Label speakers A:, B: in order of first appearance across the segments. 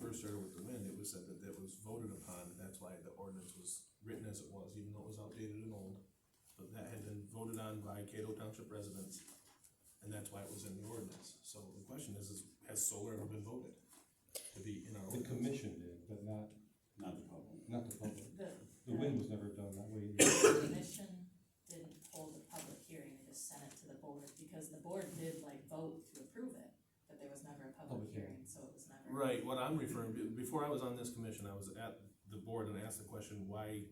A: first started with the wind, it was said that that was voted upon, that's why the ordinance was written as it was, even though it was outdated and old. But that had been voted on by Cato Township residents, and that's why it was in the ordinance. So the question is, is has solar ever been voted to be in our
B: The
A: ordinance?
B: commission did, but not,
C: not the public.
B: not the public.
D: The,
B: The wind was never done that way.
D: the
B: either.
D: commission didn't hold a public hearing, they just sent it to the board, because the board did like vote to approve it, but there was never a public
B: Public
D: hearing, so it was never.
A: Right, what I'm referring, be- before I was on this commission, I was at the board and asked the question, why,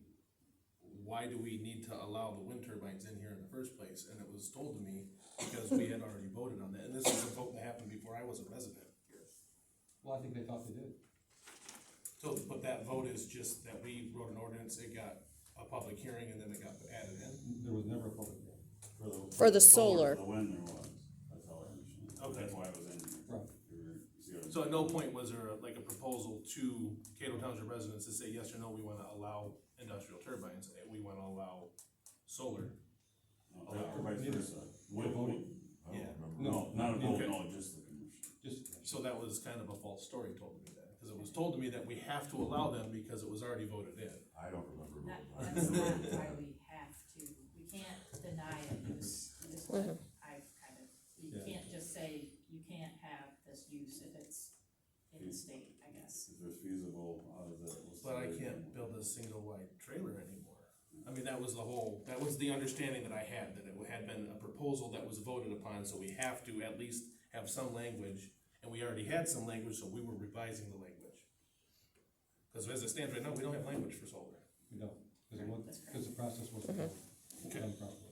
A: why do we need to allow the wind turbines in here in the first place? And it was told to me because we had already voted on that, and this is a vote that happened before I was a resident here.
B: Well, I think they thought they did.
A: So, but that vote is just that we wrote an ordinance, it got a public hearing, and then it got added in.
B: There was never a public hearing.
E: For the solar.
C: For the wind there was, that's all I understand.
A: Okay.
C: That's why it was in here.
B: Right.
C: You were- you
A: So at no point was there like a proposal to Cato Township residents to say, yes or no, we wanna allow industrial turbines, and we wanna allow solar.
C: No, Everybody's
B: Neither.
C: first, uh, wind-
B: voted.
C: wind- I don't
A: Yeah.
C: remember.
B: No,
C: No, not a vote,
A: okay.
C: no, just the commission.
B: Just,
A: So that was kind of a false story told to me then, because it was told to me that we have to allow them because it was already voted in.
F: I don't remember.
D: That,
F: voting.
D: that's not why we have to, we can't deny a use, is what I've kind of, you
B: Yeah.
D: can't just say, you can't have this use if it's in the state, I guess.
C: If there's feasible, out of the. we'll
A: But I
C: see.
A: can't build a single wide trailer anymore. I mean, that was the whole, that was the understanding that I had, that it had been a proposal that was voted upon, so we have to at least have some language. And we already had some language, so we were revising the language. Because as it stands right now, we don't have language for solar.
B: you know, because it wa-
D: That's correct.
B: 'cause the process wasn't done
A: Okay.
B: done properly.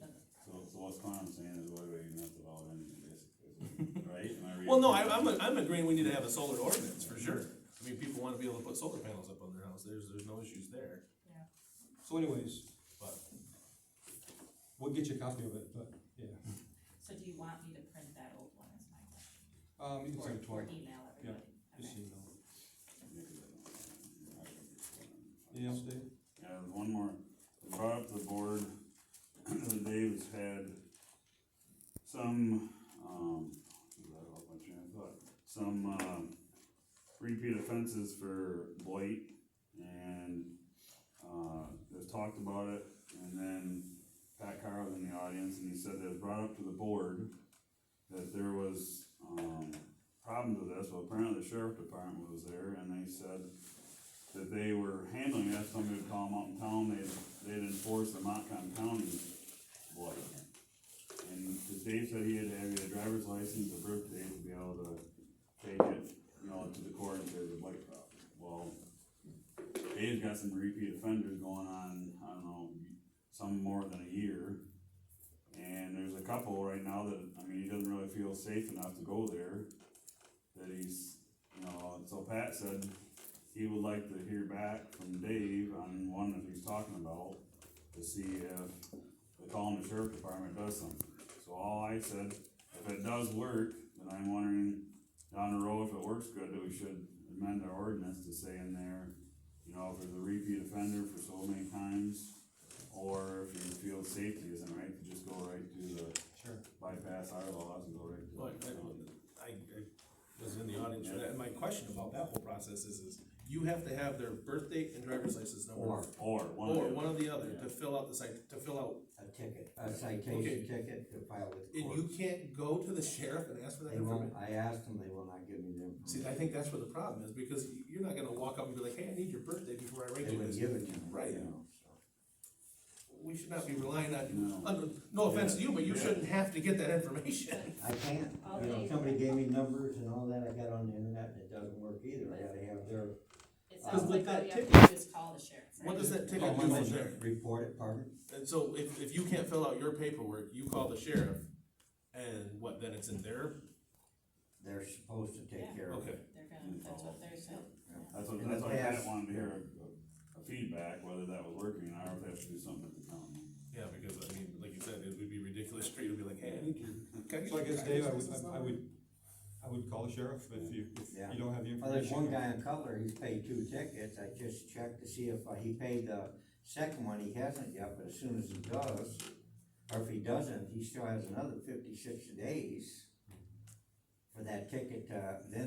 C: So, so what's Connor saying is, what are you gonna have to vote anything, basically, right? Am I reading
A: Well, no, I,
C: correctly?
A: I'm, I'm agreeing we need to have a solar ordinance, for sure. I mean, people wanna be able to put solar panels up on their house, there's, there's no issues there.
B: So anyways,
A: But
B: we'll get you a copy of it, but, yeah.
D: So do you want me to print that old one is my question?
B: Um, you can send it to
D: Or, or
B: her.
D: email everybody?
B: Just
D: Okay.
B: so you know.
C: Yeah,
B: Anything else, Dave?
C: there's one more, I brought up the board, that Dave's had some, um, I got off my train of thought. some, um, repeat offenses for blight, and, uh, they've talked about it, and then Pat Carr was in the audience, and he said that it was brought up to the board that there was, um, problems with this, well, apparently the sheriff department was there, and they said that they were handling that, somebody would call them out in town, they'd, they'd enforce the Montcalm County law. And 'cause Dave said he had to have either driver's license or birth date to be able to take it, you know, to the court if there's a blight problem. Well, Dave's got some repeat offenders going on, I don't know, some more than a year. And there's a couple right now that, I mean, he doesn't really feel safe enough to go there, that he's, you know, and so Pat said he would like to hear back from Dave on one that he's talking about, to see if the Collin Sheriff Department does something. So all I said, if it does work, then I'm wondering down the road, if it works good, that we should amend our ordinance to say in there, you know, if there's a repeat offender for so many times, or if you feel safety isn't right, to just go right to the,
B: Sure.
C: bypass our laws and go right to.
A: Well, I, I I was in the audience for that, and my question about that whole process is, is you have to have their birth date and driver's license number.
G: Or
C: Or one of the.
A: Or one or the other,
C: Yeah.
A: to fill out the site, to fill out,
G: a ticket, a citation ticket to file with the
A: and
G: court.
A: you can't go to the sheriff and ask for that
G: They won't,
A: information.
G: I asked them, they will not give me the
A: See,
G: information.
A: I think that's where the problem is, because you- you're not gonna walk up and be like, hey, I need your birthday before I write
G: They
A: you
G: would
A: this.
G: give it to me,
A: Right.
G: you know, so.
A: We should not be relying on you,
C: No.
A: under- no offense to you, but you
C: Yeah.
A: shouldn't have to get that information.
G: I can't,
D: Oh,
G: you know,
D: they-
G: somebody gave me numbers and all that, I got on the internet and it doesn't work either, I gotta have their.
D: It
G: Uh,
D: sounds
G: with
D: like
G: that
D: all you have to do is call the sheriff, right?
A: What does that ticket
G: Oh,
A: do
G: my
A: from there?
G: Report it, pardon?
A: And so if, if you can't fill out your paperwork, you call the sheriff, and what, then it's in their,
G: They're supposed to
D: Yeah.
G: take care of
A: okay.
G: it.
D: They're gonna, that's what they're saying.
C: That's what,
G: In the
C: that's what Pat
G: past-
C: wanted to hear, a, a feedback, whether that was working, or if they have to do something at the county.
A: Yeah, because I mean, like you said, it would be ridiculous for you to be like, hey, I need your. can
B: So I
A: get your
B: guess, Dave, I
A: driver's
B: would,
A: license
B: I- I
A: number?"
B: would, I would call the sheriff if you, if
G: Yeah.
B: you don't have the information.
G: Well, there's one guy in Cutler, he's paid two tickets, I just checked to see if, uh, he paid the second one, he hasn't yet, but as soon as he does, or if he doesn't, he still has another fifty-six days for that ticket, uh, then